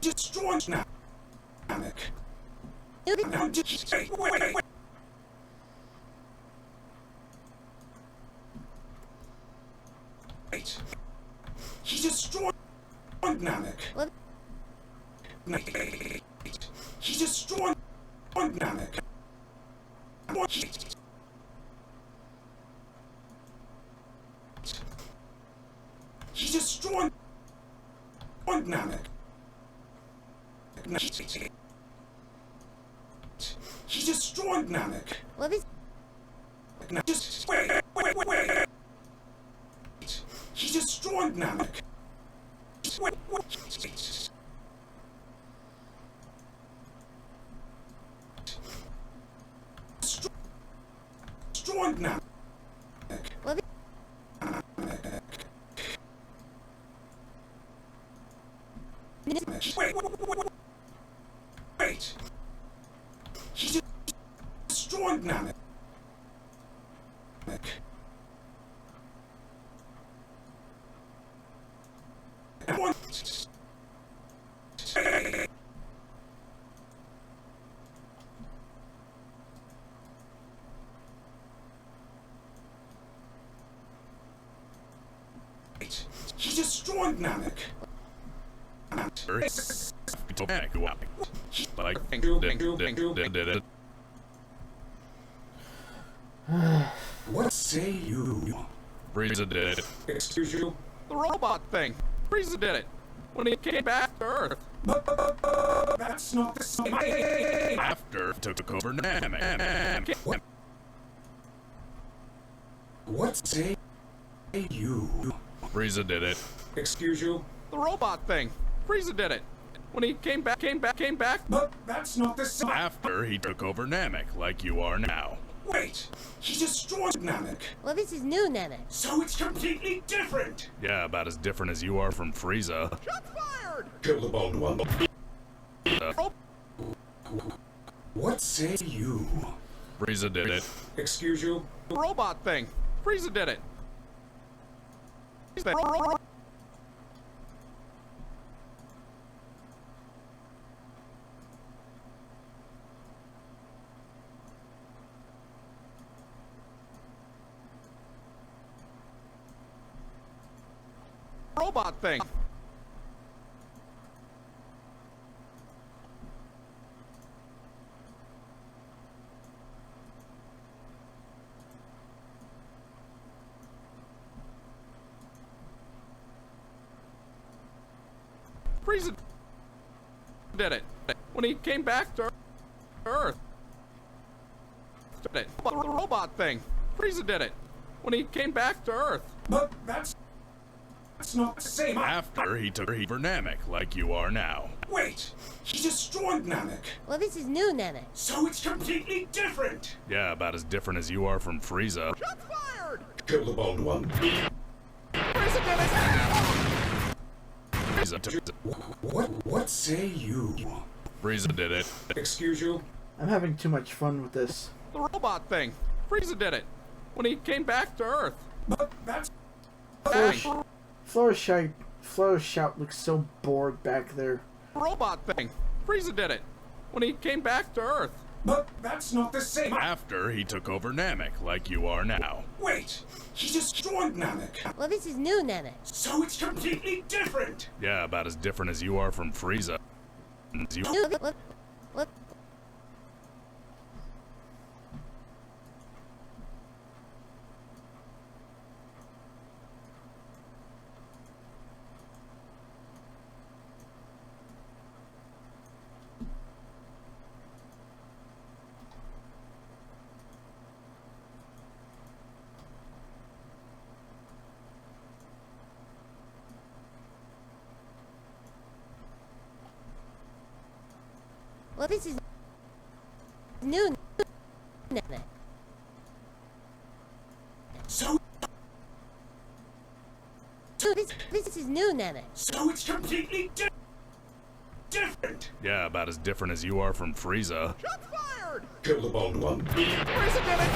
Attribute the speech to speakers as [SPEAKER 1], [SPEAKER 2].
[SPEAKER 1] George now. Nanak. Now just stay away. Wait. He destroyed Nanak.
[SPEAKER 2] What?
[SPEAKER 1] Wait. He destroyed Nanak. Wait. He destroyed Nanak. He destroyed Nanak.
[SPEAKER 2] What is
[SPEAKER 1] Now just wait, wait, wait, wait. He destroyed Nanak. Just wait, wait. Destroy- Destroyed Nanak.
[SPEAKER 2] what is
[SPEAKER 1] Wait, wait, wait, wait, wait. Wait. He just destroyed Nanak. Nanak. What? Wait. He destroyed Nanak. Nanak.
[SPEAKER 3] But I think
[SPEAKER 1] What say you?
[SPEAKER 3] Frieza did it.
[SPEAKER 1] Excuse you?
[SPEAKER 3] The robot thing. Frieza did it. When he came back to Earth.
[SPEAKER 1] That's not the same. I-
[SPEAKER 3] After took over Namek.
[SPEAKER 1] What say you?
[SPEAKER 3] Frieza did it.
[SPEAKER 1] Excuse you?
[SPEAKER 3] The robot thing. Frieza did it. When he came back, came back, came back.
[SPEAKER 1] But that's not the same.
[SPEAKER 3] After he took over Namek, like you are now.
[SPEAKER 1] Wait, he destroyed Namek,
[SPEAKER 2] what is his new Namek?
[SPEAKER 1] so it's completely different.
[SPEAKER 3] Yeah, about as different as you are from Frieza.
[SPEAKER 1] Kill the bald one.
[SPEAKER 3] Uh,
[SPEAKER 1] What say you?
[SPEAKER 3] Frieza did it.
[SPEAKER 1] Excuse you?
[SPEAKER 3] The robot thing. Frieza did it. Frieza- Robot thing. Frieza did it when he came back to Earth. Did it. The robot thing. Frieza did it when he came back to Earth.
[SPEAKER 1] But that's that's not the same. I-
[SPEAKER 3] After he took over Namek, like you are now.
[SPEAKER 1] Wait, he destroyed Namek,
[SPEAKER 2] What is his new Namek?
[SPEAKER 1] so it's completely different.
[SPEAKER 3] Yeah, about as different as you are from Frieza.
[SPEAKER 1] Kill the bald one.
[SPEAKER 3] Frieza, took-
[SPEAKER 1] What what say you?
[SPEAKER 3] Frieza did it.
[SPEAKER 1] Excuse you?
[SPEAKER 4] I'm having too much fun with this.
[SPEAKER 3] The robot thing. Frieza did it when he came back to Earth.
[SPEAKER 1] But that's
[SPEAKER 4] Flourish, Flourish, Flourish Shout looks so bored back there.
[SPEAKER 3] Robot thing. Frieza did it when he came back to Earth.
[SPEAKER 1] but that's not the same. I-
[SPEAKER 3] After he took over Namek, like you are now.
[SPEAKER 1] Wait, he destroyed Namek,
[SPEAKER 2] What is his new Namek?
[SPEAKER 1] so it's completely different.
[SPEAKER 3] Yeah, about as different as you are from Frieza. As you-
[SPEAKER 2] New what? What? What is his new Namek?
[SPEAKER 1] So
[SPEAKER 2] This this is his new Namek.
[SPEAKER 1] so it's completely di- different.
[SPEAKER 3] Yeah, about as different as you are from Frieza.
[SPEAKER 1] Kill the bald one.
[SPEAKER 3] Frieza did it!